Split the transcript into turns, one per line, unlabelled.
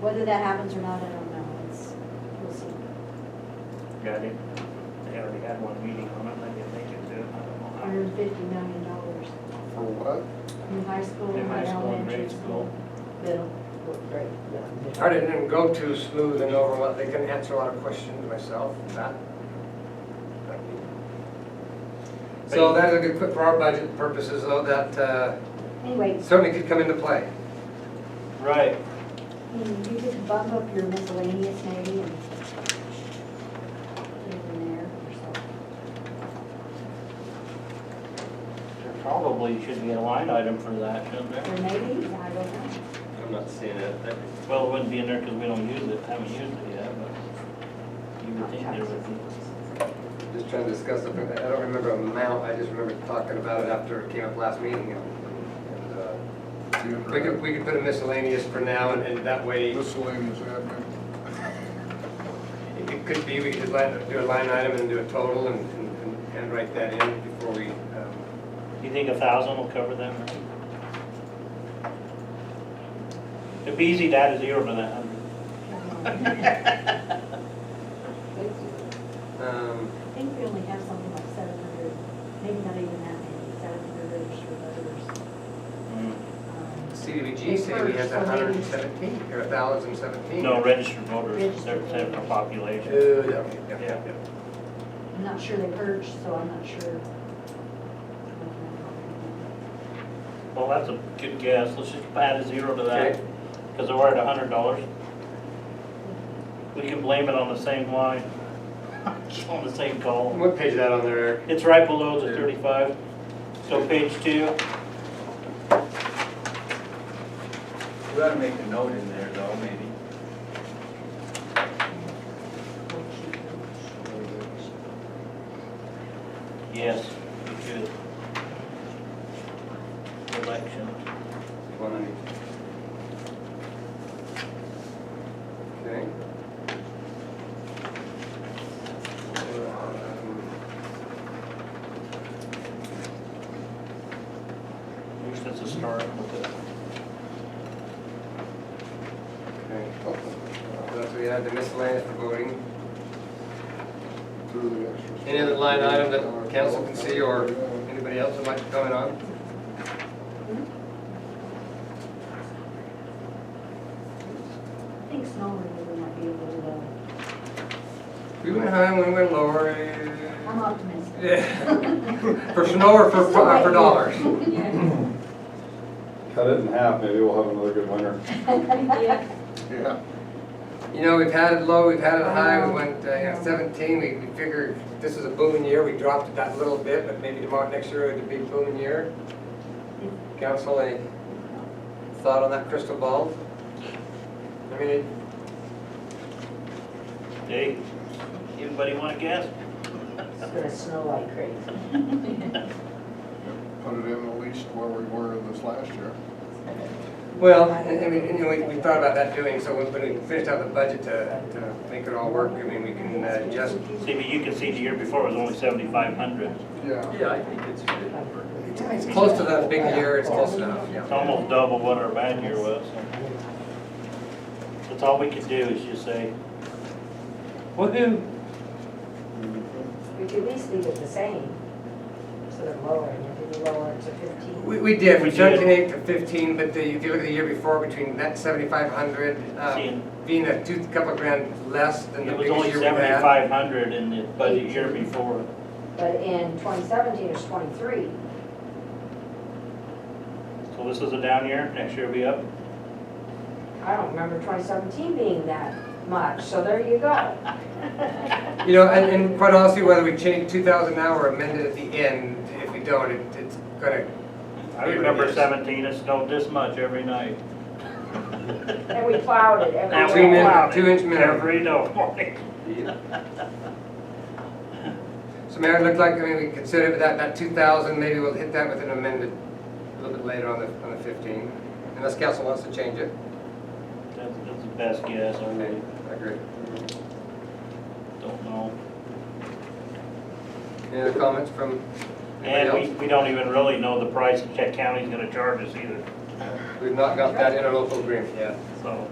Whether that happens or not, I don't know, it's, we'll see.
Got it. They already had one meeting on it, maybe if they could do it, I don't
Hundred
know.
and fifty million dollars
For what?
in high school,
In high
in
school and
elementary
grade
school,
school.
middle.
I didn't go too smooth and overlap, they didn't answer a lot of questions myself, that. that we- So that's a good, quick for our budget purposes though, that uh,
Anyway,
certainly could come into play.
Right,
you you could bump up your miscellaneous maybe and put it in there or something.
there probably should be a line item for that, shouldn't there?
Or maybe, I don't know.
I'm not seeing it. That-
Well, it wouldn't be in there because we don't use it, haven't used it yet, but you would think there would be.
Just trying to discuss something, that- I don't remember amount, I just remember talking about it after it came up last meeting. and, and, uh, We could, we could put a miscellaneous for now and- and that way
Miscellaneous admin.
It could be, we could line- do a line item and do a total and, and- and- and write that in before we, um,
You think a thousand will cover that? Marie? It'd be easy to add a zero to that hundred.
I
um,
think we only have something like seven hundred, maybe not even that many, seven hundred registered voters.
Hmm.
um,
CDBG say we have hundred and seventeen, or thousand seventeen.
No, registered voters, they're
Registered
percent of
voters.
population.
Yeah.
Yeah.
I'm not sure they purged, so I'm not sure.
Well, that's a good guess. Let's just add a zero to that,
Okay.
because we're at a hundred dollars. We can blame it on the same line, on the same call.
What page is that on there, Eric?
It's right below the thirty-five, so page two.
We ought to make a note in there though, maybe.
Yes, we should. Election.
Okay.
At least that's a start with it.
Okay. That's, we had the miscellaneous for voting. Any other line item that council can see or anybody else would like to comment on?
I think snow removal might be uh, a little,
We went high and we went lower.
uh, I'm optimistic.
Yeah. For snow or for, for for dollars?
Cut it in half, maybe we'll have another good winter.
Yeah.
You know, we've had it low, we've had it high, we went, uh, you know, seventeen, we, we figured this is a booming year, we dropped it that little bit, but maybe tomorrow, next year it'd be a booming year. Council, any thought on that crystal ball? I mean,
Hey, anybody want to guess?
It's gonna snow like crazy.
Put it in at least where we were in this last year.
well, I I mean, you know, we, we thought about that doing, so when we finished out the budget to, to make it all work, I mean, we can uh, adjust.
See, but you can see the year before was only seventy-five hundred.
Yeah.
Yeah, I think it's good.
It's close to that big year, it's close enough,
It's
yeah.
almost double what our bad year was. That's all we could do is just say, woohoo.
We could at least leave it the same, sort of lower, and if you lower it to fifteen.
We, we did, we
We
jumped in
did.
eight to fifteen, but the, if you look at the year before, between that seventy-five hundred,
See,
um, being a two, couple grand less than the
It was
biggest
only
year we had.
seventy-five hundred in the budget year before.
But in twenty seventeen, it's twenty-three.
So this is a down year, next year will be up.
I don't remember twenty seventeen being that much, so there you go.
You know, and, and quite honestly, whether we change two thousand now or amend it at the end, if we don't, it, it's gonna,
I remember seventeen, it snowed this much every night.
And we plowed it every
Now
Two
we
min-
day.
plowed it
two inch minimum.
Every day.
so Mayor, it looked like, I mean, we considered that, that two thousand, maybe we'll hit that with an amended a little bit later on the, on the fifteen, unless council wants to change it.
That's, that's the best guess, I really
I agree.
don't know.
Any other comments from anybody
And we,
else?
we don't even really know the price that Check County's gonna charge us either,
We've not got that interlocal agreement yet.
so.